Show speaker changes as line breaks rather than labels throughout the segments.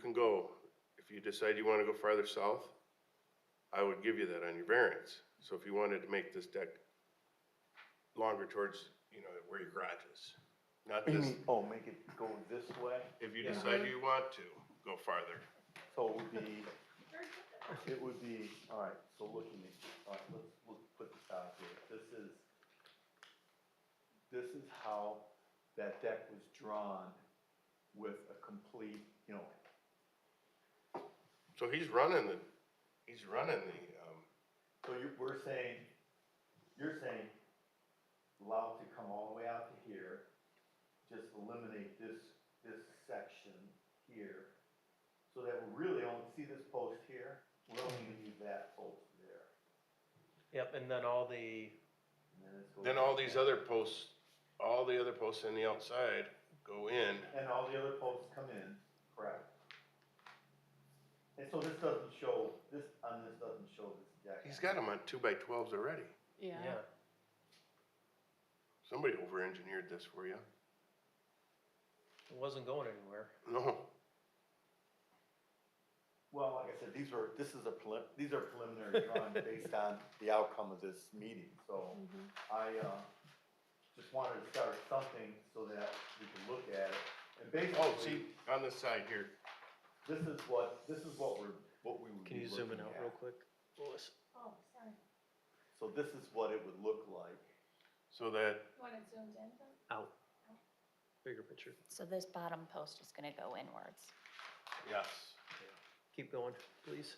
can go, if you decide you wanna go farther south, I would give you that on your variance. So if you wanted to make this deck longer towards, you know, where your garage is, not this,
Oh, make it go this way,
if you decide you want to go farther.
so it would be, it would be, alright, so looking at, alright, let's, let's put this out here, this is, this is how that deck was drawn with a complete, you know,
So he's running the, he's running the, um,
so you, we're saying, you're saying allow it to come all the way out to here, just eliminate this, this section here, so that we really only see this post here, we're only gonna use that post there.
Yep, and then all the,
And then it's going
then all
back
these
in.
other posts, all the other posts on the outside go in.
And all the other posts come in, correct? And so this doesn't show, this, on this doesn't show this deck.
He's got them on two by twelves already.
Yeah.
yeah,
Somebody over-engineered this for you.
it wasn't going anywhere.
No,
Well, like I said, these were, this is a prelim, these are preliminary drawings based on the outcome of this meeting, so
Mhm.
I, uh, just wanted to start something so that we can look at it. And
oh, see,
basically,
on this side here,
this is what, this is what we're, what we would
Can
be
you zoom
looking
in out
at.
real quick? Louis?
Oh, sorry.
So this is what it would look like.
so that,
You want it zoomed in? then?
Out. Bigger picture.
So this bottom post is gonna go inwards.
yes.
Keep going, please.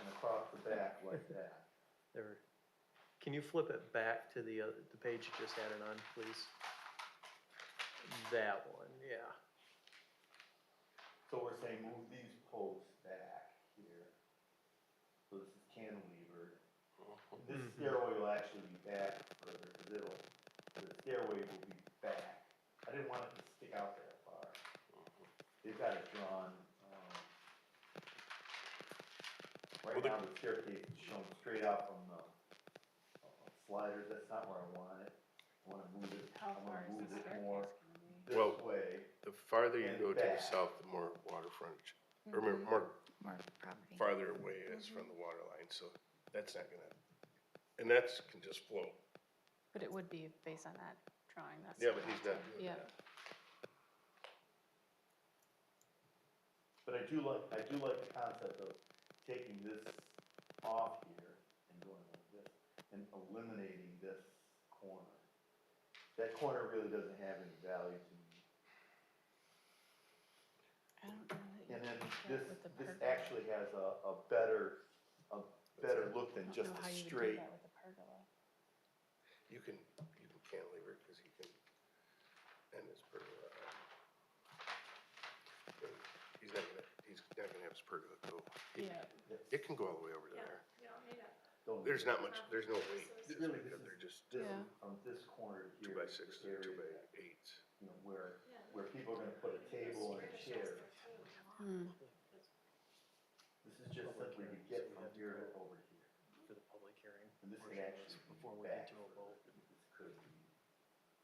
and across the back like that.
There. Can you flip it back to the, uh, the page you just added on, please? That one, yeah.
So we're saying move these posts back here. So this is cantilevered. This
Mhm.
stairway will actually be back further, cause it'll, the stairway will be back. I didn't want it to stick out that far. They've got it drawn, um.
Well,
Right
the-
now, the staircase is shown straight out from the uh, sliders, that's not where I want it. I wanna move it, I
How far
wanna
is
move
the
it
staircase
more
gonna be?
this
Well,
way.
The farther you
And
go to the
back.
south, the more water frontage, or more-
Mm-hmm.
more
More property.
farther away it is from the water line, so that's not gonna, and that's, can just flow.
But it would be based on that drawing, that's.
Yeah, but he's not doing
Yeah.
that.
But I do like, I do like the concept of taking this off here and going like this, and eliminating this corner. That corner really doesn't have any value to me.
I don't know that you
And then
can do
this,
that with the
this
pergola.
actually has a, a better, a better look
I
than
don't
just a
know how you would do
straight.
that with a pergola.
You can, you can cantilever it, cause he can, and his pergola. um, He's not gonna, he's not gonna have his pergola go. It-
Yeah.
Yes.
It can go all the way over to there.
Don't-
There's not much, there's no weight.
It really is-
They're just
This,
Yeah.
from this corner to
two
here.
by
is the
sixes, and two
area
by
that,
eights.
You know, where, where people are gonna put a table and a chair.
Hmm.
This is just simply to get from here to over here.
For the public hearing.
And this
portion
could actually be
of this Before we
back
get to a vote.
This could be,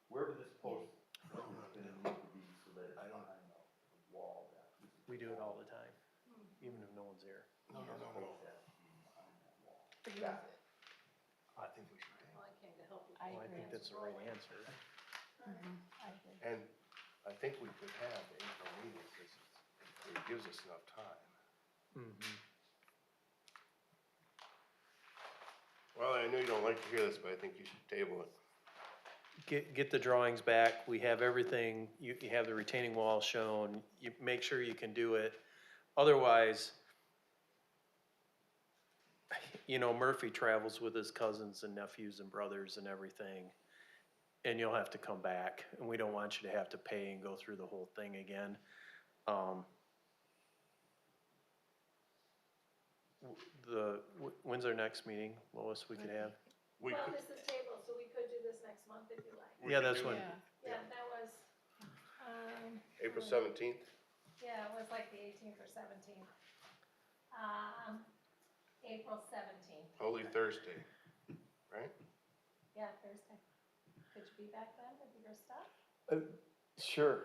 wherever this post is gonna need to be so that it's
I don't-
behind the wall. that- this is
We do it all
wall,
the time, even if no one's here.
No, no,
this
no, no.
post has to be behind that wall.
But you-
Got it.
I think we should. hang.
I
Well, I
agree.
think that's the right answer.
Mhm. I agree.
And I think we could have the April meeting, because it gives us enough time.
Mm-hmm.
Well, I know you don't like to hear this, but I think you should table it.
Get, get the drawings back, we have everything, you, you have the retaining wall shown, you make sure you can do it. Otherwise, you know, Murphy travels with his cousins and nephews and brothers and everything. And you'll have to come back, and we don't want you to have to pay and go through the whole thing again. Um, w- The, w- when's our next meeting, Lois, we could have?
We
Well,
could,
this is tabled, so we could do this next month if you like.
we
Yeah,
could
that's
do
what-
Yeah.
Yeah, that was, um.
April
um,
seventeenth,
Yeah, it was like the eighteenth or seventeenth. Um, April seventeenth,
Holy Thursday, right?
yeah, Thursday. Could you be back then with your stuff?
Sure.